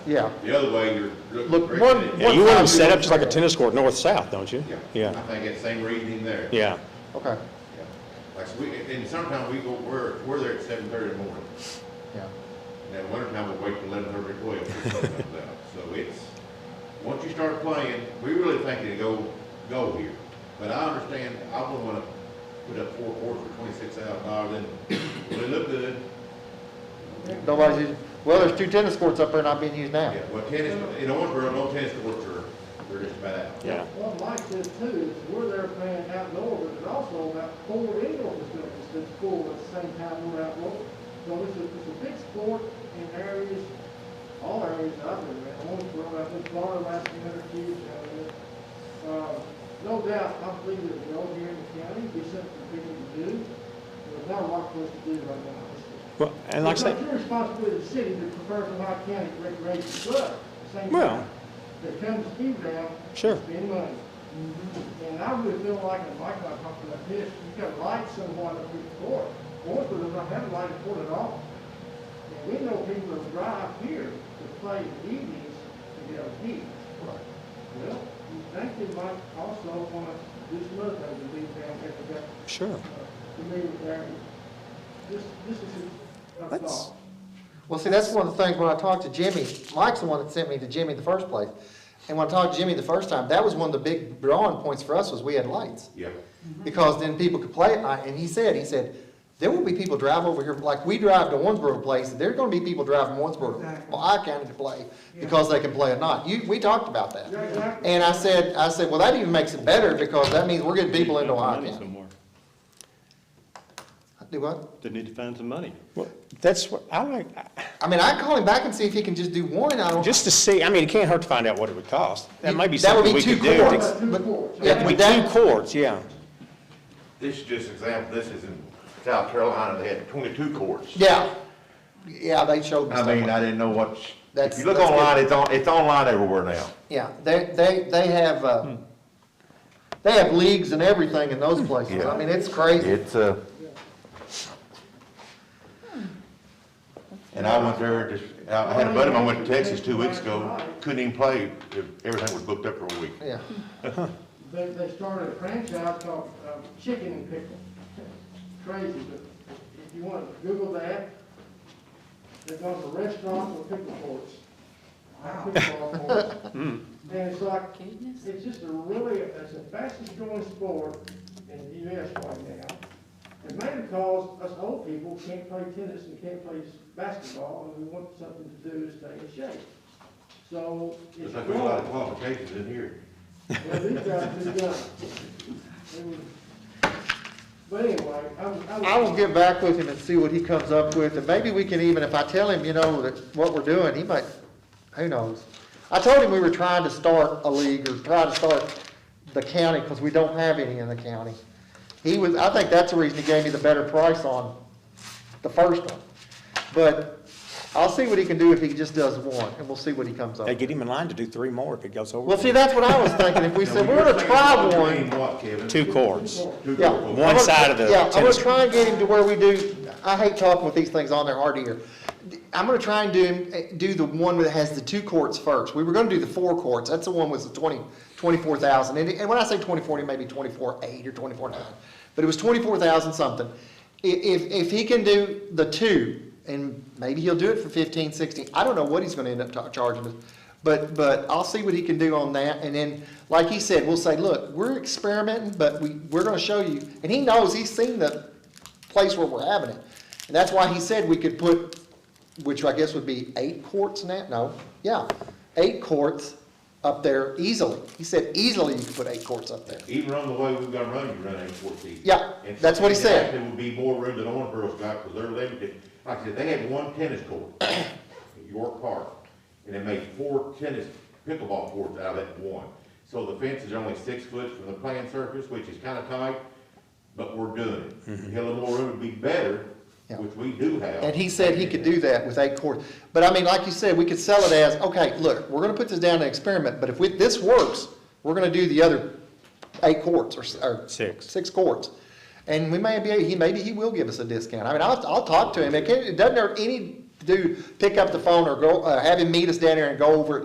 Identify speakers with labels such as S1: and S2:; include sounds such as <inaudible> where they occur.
S1: Yeah,
S2: The other way, you're looking.
S1: Look,
S2: for-
S1: one-
S2: Yeah,
S1: one-
S3: You want them set up just like a tennis court, north-south, don't you?
S2: Yeah,
S3: Yeah,
S2: I think it's same reasoning there.
S3: yeah.
S1: okay,
S2: Yeah. Like, so we, and sometimes we go, we're, we're there at seven thirty in the morning,
S1: yeah.
S2: and then winter time we wait till eleven thirty, twelve, till sun comes out. So it's, once you start playing, we really think it'll go, go here. But I understand, I wouldn't wanna put up four courts for twenty-six thousand dollars, and will it look good?
S1: Nobody's, using- well, there's two tennis courts up there not being used now.
S2: Yeah, well, tennis, in Owensboro, no tennis courts are, they're just about out.
S3: Yeah.
S4: Well, Mike said too, is we're there playing outdoor, but there's also about four indoor facilities that's full at the same time we're outdoor. So it's a, it's a big sport in areas, all areas I've been in, I want to throw out this bar last minute, huge out of it. Uh, No doubt, I believe that we're all here in the county, we something for people to do, there's not a lot for us to do right now. It's just-
S3: Well, and like I
S4: It's
S3: said,
S4: not your responsibility as a city to prefer the Lehigh County Recreation Club, at the same
S3: Well-
S4: time. That comes to you down.
S3: Sure. Mm-hmm.
S4: Spend money. And I really feel like, and Mike and I talked about this, you got lights somewhat up here at court. Orford does not have a light at court at all. And we know people that drive here to play in the evenings to get a beat. Well, you think they might also want to do some other things to leave down here to get
S3: sure.
S4: familiar with their, this, this is a- a
S3: Let's-
S4: thought.
S1: Well, see, that's one of the things when I talked to Jimmy, Mike's the one that sent me to Jimmy the first place. And when I talked to Jimmy the first time, that was one of the big drawing points for us was we had lights.
S2: Yeah,
S1: Because then people could play at night, and he said, he said, there will be people drive over here, like we drive to Owensboro Place, there're gonna be people driving Owensboro, well, I counted to play, because they can play at night. You, we talked about that.
S4: You're exactly
S1: And I said, I said, well, that even makes it better because that means we're getting people into Ohio County.
S5: somewhere.
S1: Do what?
S5: They need to find some money.
S3: Well, that's what, I like, I-
S1: I mean, I call him back and see if he can just do one. I don't.
S3: just to see, I mean, it can't hurt to find out what it would cost. That might be
S1: That would
S3: something
S1: be two
S3: we could do.
S1: courts,
S3: It's-
S1: but-
S4: courts.
S1: yeah,
S3: It
S1: but
S3: would be two
S1: that-
S3: courts, yeah.
S2: this is just example, this is in South Carolina, they had twenty-two courts.
S1: Yeah, yeah, they showed me
S2: I mean,
S1: something.
S2: I didn't know what, if
S1: That's-
S2: you look
S1: that's good.
S2: online, it's on, it's online everywhere now.
S1: Yeah, they, they, they have,
S3: Hmm.
S1: uh, they have leagues and everything in those places. I mean, it's crazy.
S2: It's, uh, and I went there, just, I had a buddy, of mine went to Texas two weeks ago, couldn't even play, everything was booked up for a week.
S1: Yeah,
S4: They, they started a franchise called um, Chicken and Pickle. <laughs> Crazy, but if you want to Google that, there's a restaurant with pickle courts. Pickleball courts. And it's like,
S6: Goodness.
S4: it's just a really, it's the fastest growing sport in the US right now. And mainly because us old people can't play tennis and can't play basketball, and we want something to do to stay in shape. So it's
S2: It's like we got a lot of
S4: growing.
S2: qualifications in here.
S4: Well, these guys do got it. They were- But anyway, I was.
S1: I will get back with him and see what he comes up with, and maybe we can even, if I tell him, you know, that what we're doing, he might, who knows? I told him we were trying to start a league or try to start the county, because we don't have any in the county. He was, I think that's the reason he gave me the better price on the first one. But I'll see what he can do if he just does one, and we'll see what he comes up
S3: They
S1: with.
S3: get him in line to do three more if it goes over.
S1: Well, see, that's what I was thinking, if we said, we're gonna try one.
S2: What, Kevin?
S3: Two courts.
S2: Two
S1: Yeah.
S2: courts.
S3: One
S1: I'm gonna-
S3: side of the
S1: Yeah, I'm gonna
S3: tennis
S1: try and get him to where we do, I hate talking with these things on their hard ear. I'm gonna try and do, him- eh, do the one that has the two courts first. We were gonna do the four courts, that's the one with the twenty, twenty-four thousand. And, and when I say twenty-four, it may be twenty-four eight or twenty-four nine, but it was twenty-four thousand something. I- If, if he can do the two, and maybe he'll do it for fifteen, sixteen, I don't know what he's gonna end up ta- charging us. But, but I'll see what he can do on that, and then, like he said, we'll say, look, we're experimenting, but we, we're gonna show you. And he knows, he's seen the place where we're having it. And that's why he said we could put, which I guess would be eight courts now, no, yeah, eight courts up there easily. He said easily you could put eight courts up there.
S2: Even on the way we've got to run, you run eight fourteen.
S1: Yeah, that's what he said.
S2: There would be more room than Owensboro's got, because they're limited. Like I said, they had one tennis
S1: <coughs>
S2: court at York Park, and they made four tennis pickleball courts out of that one. So the fences are only six foot from the playing surface, which is kind of tight, but we're doing it. A little more room would be better,
S1: Mm-hmm. Yeah.
S2: which we do have.
S1: And he said he could do that with eight courts. But I mean, like you said, we could sell it as, okay, look, we're gonna put this down to experiment, but if we, this works, we're gonna do the other eight courts or, s- or.
S3: Six.
S1: Six courts. And we may be, he, maybe he will give us a discount. I mean, I'll, I'll talk to him. It can't, it doesn't hurt any do, pick up the phone or go, uh, have him meet us down there and go over it